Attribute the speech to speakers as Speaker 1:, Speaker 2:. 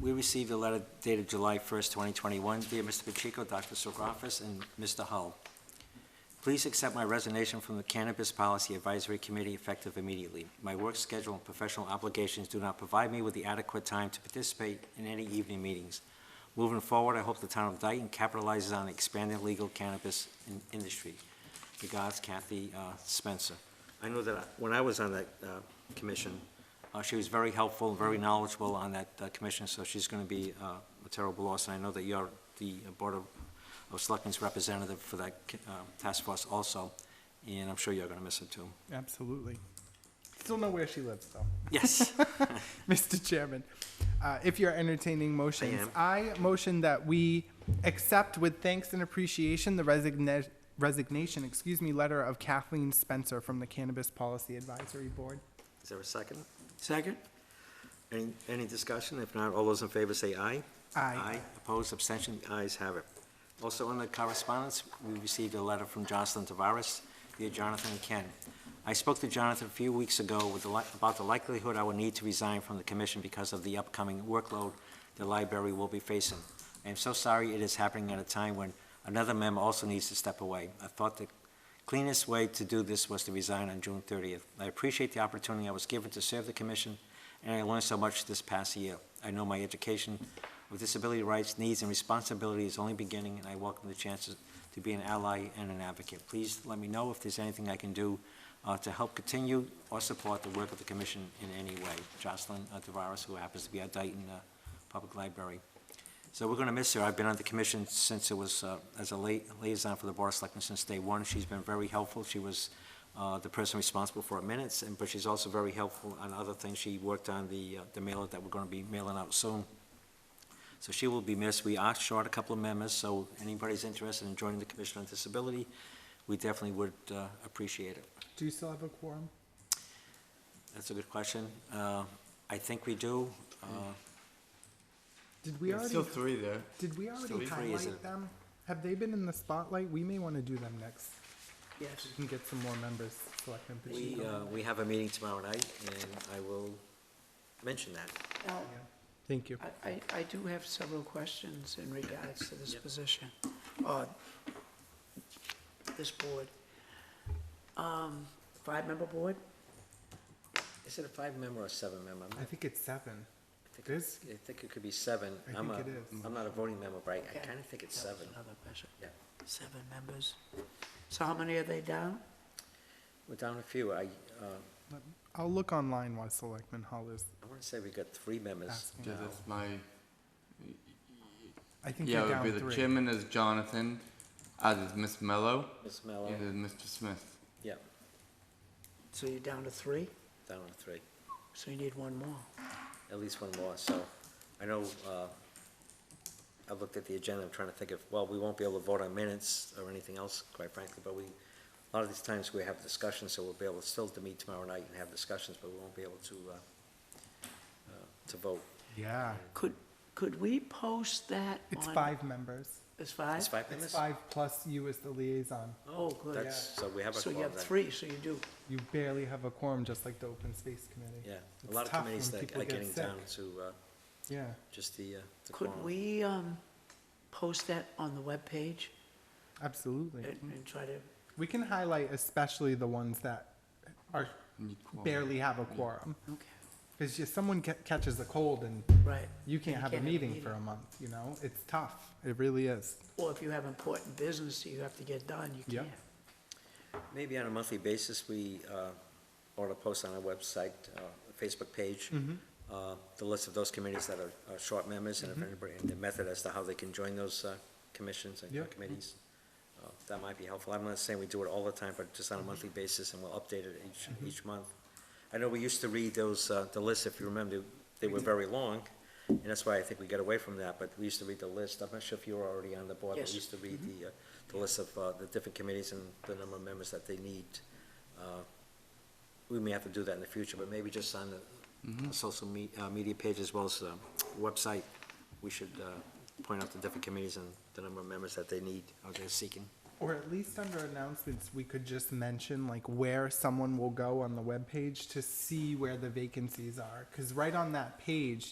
Speaker 1: We received a letter dated July 1st, 2021. Dear Mr. Pacheco, Dr. Silgoffis, and Mr. Hull, please accept my resignation from the Cannabis Policy Advisory Committee effective immediately. My work schedule and professional obligations do not provide me with the adequate time to participate in any evening meetings. Moving forward, I hope the town of Dayton capitalizes on the expanding legal cannabis in- industry. Regards, Kathy uh, Spencer. I know that I- when I was on that uh, commission, uh, she was very helpful, and very knowledgeable on that uh, commission, so she's going to be uh, a terrible loss. And I know that you're the Board of of Selectmen's representative for that uh, task force also, and I'm sure you're going to miss it too.
Speaker 2: Absolutely. Still know where she lives, though.
Speaker 1: Yes.
Speaker 2: Mr. Chairman, uh, if you're entertaining motions, I motion that we accept with thanks and appreciation the resigna- resignation, excuse me, letter of Kathleen Spencer from the Cannabis Policy Advisory Board.
Speaker 1: Is there a second? Second. Any, any discussion? If not, all those in favor say aye.
Speaker 2: Aye.
Speaker 1: Opposed, abstention, The ayes have it. Also, under correspondence, we received a letter from Jocelyn Tavares, dear Jonathan and Ken. I spoke to Jonathan a few weeks ago with the, li- about the likelihood I would need to resign from the commission because of the upcoming workload the library will be facing. I am so sorry it is happening at a time when another member also needs to step away. I thought the cleanest way to do this was to resign on June 30th. I appreciate the opportunity I was given to serve the commission, and I learned so much this past year. I know my education of disability rights, needs, and responsibilities is only beginning, and I welcome the chances to be an ally and an advocate. Please let me know if there's anything I can do uh, to help continue or support the work of the commission in any way. Jocelyn uh, Tavares, who happens to be at Dayton uh, Public Library. So we're going to miss her. I've been on the commission since it was, uh, as a la- liaison for the Board of Selectmen since day one. She's been very helpful. She was uh, the person responsible for our minutes, and, but she's also very helpful on other things. She worked on the uh, the mailer that we're going to be mailing out soon. So she will be missed. We are short a couple of members, so anybody's interested in joining the Commission on Disability, we definitely would uh, appreciate it.
Speaker 2: Do you still have a quorum?
Speaker 1: That's a good question. Uh, I think we do. Uh,
Speaker 2: Did we
Speaker 3: There's
Speaker 2: already,
Speaker 3: Still three there.
Speaker 2: did we
Speaker 1: still
Speaker 2: already
Speaker 1: three, isn't it?
Speaker 2: highlight them? Have they been in the spotlight? We may want to do them next. Yes. We can get some more members, Selectman
Speaker 1: We,
Speaker 2: Pacheco.
Speaker 1: uh, we have a meeting tomorrow night, and I will mention that.
Speaker 4: Now,
Speaker 2: Yeah. Thank you.
Speaker 4: Uh, I- I, I do have several questions in regards to this position, or this board. Um, Five-member board?
Speaker 1: Is it a five-member or seven-member?
Speaker 2: I think it's seven.
Speaker 1: think
Speaker 2: It is?
Speaker 1: I think it could be seven.
Speaker 2: I
Speaker 1: I'm
Speaker 2: think
Speaker 1: a-
Speaker 2: it is.
Speaker 1: I'm not a voting member, but I- I
Speaker 4: Okay.
Speaker 1: kind of think it's
Speaker 4: That was
Speaker 1: seven.
Speaker 4: Another question.
Speaker 1: Yeah.
Speaker 4: Seven members. So how many are they down?
Speaker 1: We're down a few. I, uh,
Speaker 2: I'll look online while Selectman Hull is
Speaker 1: I want to say we got three members
Speaker 2: asking.
Speaker 3: Yeah,
Speaker 1: now.
Speaker 3: that's my.
Speaker 2: I think you're
Speaker 3: Yeah, it would
Speaker 2: down
Speaker 3: be the
Speaker 2: three.
Speaker 3: chairman is Jonathan, as is Miss Mello,
Speaker 1: Ms.
Speaker 3: and
Speaker 1: Mello,
Speaker 3: is Mr. Smith.
Speaker 1: yeah,
Speaker 4: So you're down to three,
Speaker 1: down to three.
Speaker 4: so you need one more.
Speaker 1: at least one more, so I know, uh, I looked at the agenda, I'm trying to think of, well, we won't be able to vote on minutes or anything else, quite frankly, but we, a lot of these times we have discussions, so we'll be able to still to meet tomorrow night and have discussions, but we won't be able to, uh, uh, to vote.
Speaker 2: Yeah,
Speaker 4: Could, could we post that on?
Speaker 2: it's five members.
Speaker 4: It's five?
Speaker 1: It's five
Speaker 2: It's
Speaker 1: minutes?
Speaker 2: five plus you as the liaison.
Speaker 4: Oh, good.
Speaker 1: That's, so we have a
Speaker 4: So you
Speaker 1: quorum
Speaker 4: have
Speaker 1: then.
Speaker 4: three, so you do.
Speaker 2: You barely have a quorum, just like the open space committee.
Speaker 1: Yeah, a
Speaker 2: It's
Speaker 1: lot of
Speaker 2: tough
Speaker 1: committees
Speaker 2: when
Speaker 1: that
Speaker 2: people
Speaker 1: are
Speaker 2: get
Speaker 1: getting down
Speaker 2: sick.
Speaker 1: to, uh,
Speaker 2: Yeah,
Speaker 1: just the, uh, the
Speaker 4: Could
Speaker 1: quorum.
Speaker 4: we um, post that on the webpage
Speaker 2: absolutely.
Speaker 4: and and try to
Speaker 2: We can highlight especially the ones that are,
Speaker 3: You need quorum.
Speaker 2: barely have a quorum.
Speaker 4: Okay,
Speaker 2: Because if someone ca- catches a cold and
Speaker 4: right.
Speaker 2: you can't
Speaker 4: You
Speaker 2: have a
Speaker 4: can't have a
Speaker 2: meeting
Speaker 4: meeting.
Speaker 2: for a month, you know? It's tough. It really is.
Speaker 4: Or if you have important business that you have to get done, you
Speaker 2: Yeah.
Speaker 4: can't.
Speaker 1: Maybe on a monthly basis, we uh, ought to post on our website, uh, Facebook page, uh, the list of those committees that are are short members, and if anybody, and the method as to how they can join those uh, commissions
Speaker 2: Yeah.
Speaker 1: and committees. Uh, That might be helpful. I'm not saying we do it all the time, but just on a monthly basis, and we'll update it each, each month. I know we used to read those, uh, the lists, if you remember, they were very long, and that's why I think we got away from that, but we used to read the list. I'm not sure if you were already on the board, but we
Speaker 4: Yes.
Speaker 1: used to read the, uh, the list of uh, the different committees and the number of members that they need. Uh, We may have to do that in the future, but maybe just on the uh, social me, uh, media page as well as the website, we should, uh, point out the different committees and the number of members that they need, or they're seeking.
Speaker 2: Or at least under announcements, we could just mention like where someone will go on the webpage to see where the vacancies are. Because right on that page,